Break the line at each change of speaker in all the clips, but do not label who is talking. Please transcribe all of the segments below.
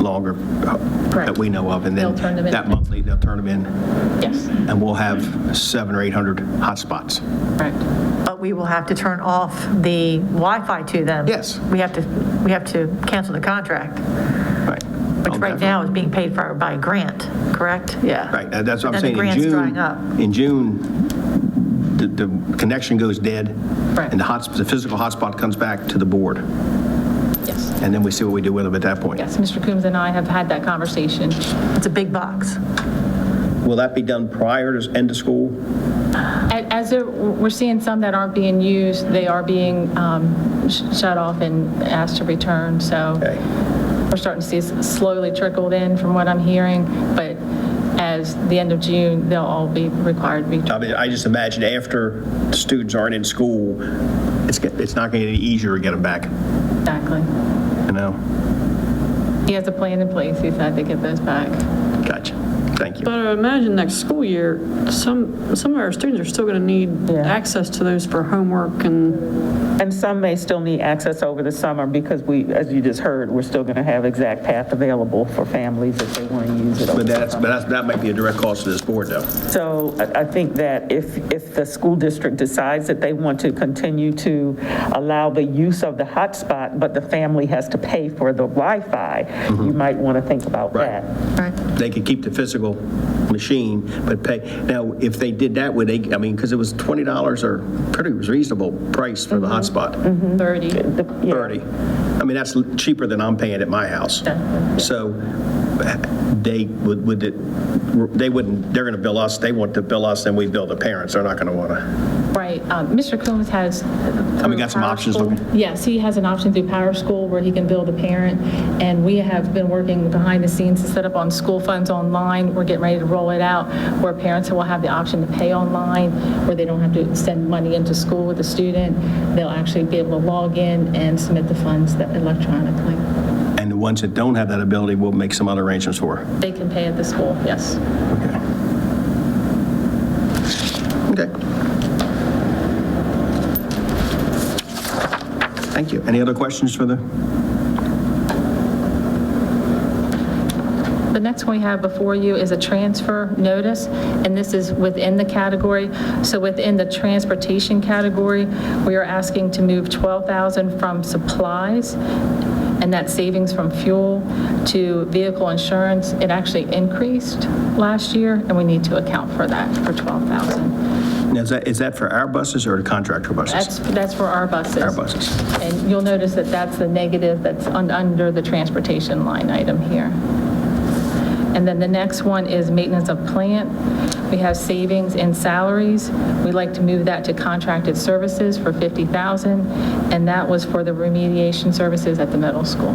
longer uh, that
Correct.
we know of. And then
They'll turn them in.
that monthly, they'll turn them in,
Yes,
and we'll have seven or 800 hotspots.
correct.
But we will have to turn off the Wi-Fi to them.
Yes.
We have to, we have to cancel the contract,
Right.
which
On
right
that.
now is being paid for by a grant, correct? Yeah.
Right, that- that's what I'm
Then
saying.
the
In
grant's
June,
drying up.
In June, the, the connection goes dead.
Right.
And the hot, the physical hotspot comes back to the board, and
Yes,
then we see what we do with them at that point.
yes, Mr. Coombs and I have had that conversation.
It's a big box.
Will that be done prior to end of school?
A- As there- we're seeing some that aren't being used, they are being um, sh- shut off and asked to return, so
Okay.
we're starting to see it slowly trickled in from what I'm hearing, but as the end of June, they'll all be required to be.
I mean, I just imagine after the students aren't in school, it's, get- it's not going to get any easier to get them back,
Exactly.
you know?
He has a plan in place, he's had to get those back.
Gotcha. Thank you.
But I imagine next school year, some, some of our students are still going to need access to those for homework and,
And some may still need access over the summer because we, as you just heard, we're still going to have Exact Path available for families if they want to use it. over
But
the
that's,
summer.
but that's, that might be a direct cost to this board, though.
So I I think that if, if the school district decides that they want to continue to allow the use of the hotspot, but the family has to pay for the Wi-Fi, you might want to think about
Mm-hmm. Right.
that.
They could keep the physical machine, but pay, now, if they did that, would they, I mean, because it was $20 or pretty reasonable price for the hotspot,
30.
30. I mean, that's cheaper than I'm paying at my house. So they would, would, it- they wouldn't, they're going to bill us, they want to bill us, and we bill the parents. They're not going to want to,
Right, um, Mr. Coombs has. And
we got some options looking.
Yes, he has an option through Power School where he can bill the parent, and we have been working behind the scenes to set up on school funds online. We're getting ready to roll it out, where parents will have the option to pay online, where they don't have to send money into school with the student. They'll actually be able to log in and submit the funds that- electronically.
and the ones that don't have that ability, we'll make some other arrangements for.
They can pay at the school, yes.
Okay. Okay. Thank you. Any other questions for the,
The next one we have before you is a transfer notice, and this is within the category. So within the transportation category, we are asking to move 12,000 from supplies, and that savings from fuel, to vehicle insurance. It actually increased last year, and we need to account for that, for 12,000.
now, is that, is that for our buses or the contractor buses?
That's, that's for our buses.
Our buses.
And you'll notice that that's the negative that's un- under the transportation line item here. And then the next one is maintenance of plant. We have savings in salaries. We'd like to move that to contracted services for 50,000, and that was for the remediation services at the middle school.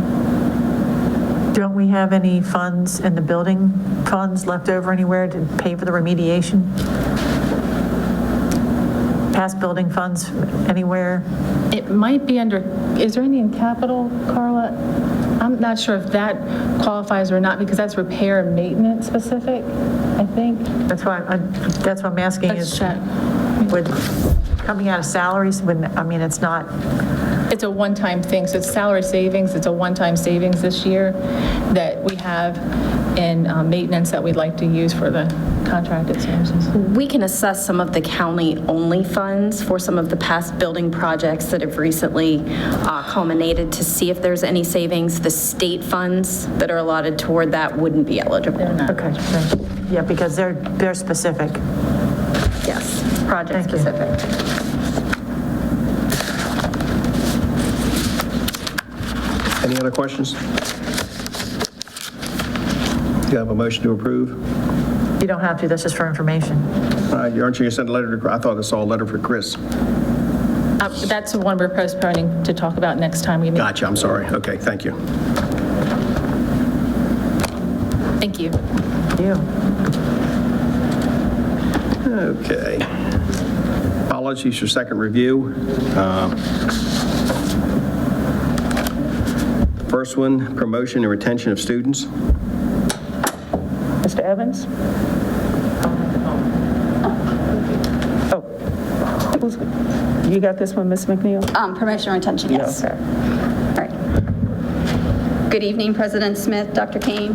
Don't we have any funds in the building, funds left over anywhere to pay for the remediation? Past building funds anywhere?
It might be under, is there any in capital, Carla? I'm not sure if that qualifies or not, because that's repair and maintenance specific, I think.
That's why, I'm- that's what I'm asking
Let's
is
check.
with, coming out of salaries, when, I mean, it's not,
It's a one-time thing, so it's salary savings, it's a one-time savings this year that we have in uh, maintenance that we'd like to use for the contracted services.
We can assess some of the county-only funds for some of the past building projects that have recently uh, culminated to see if there's any savings. The state funds that are allotted toward that wouldn't be eligible.
okay, right. yeah, because they're, they're specific.
Yes, project-specific.
Any other questions? Do you have a motion to approve?
You don't have to, that's just for information.
Uh, Aren't you going to send a letter to, I thought I saw a letter for Chris.
Uh, That's the one we're postponing to talk about next time we meet.
Gotcha, I'm sorry. Okay, thank you.
Thank you.
You.
Okay. Policies for second review. Uh, First one, promotion and retention of students.
Mr. Evans? Oh, Who's- you got this one, Ms. McNeil?
Um, Promotion or retention,
Yeah,
yes.
okay.
All right. Good evening, President Smith, Dr. Kane,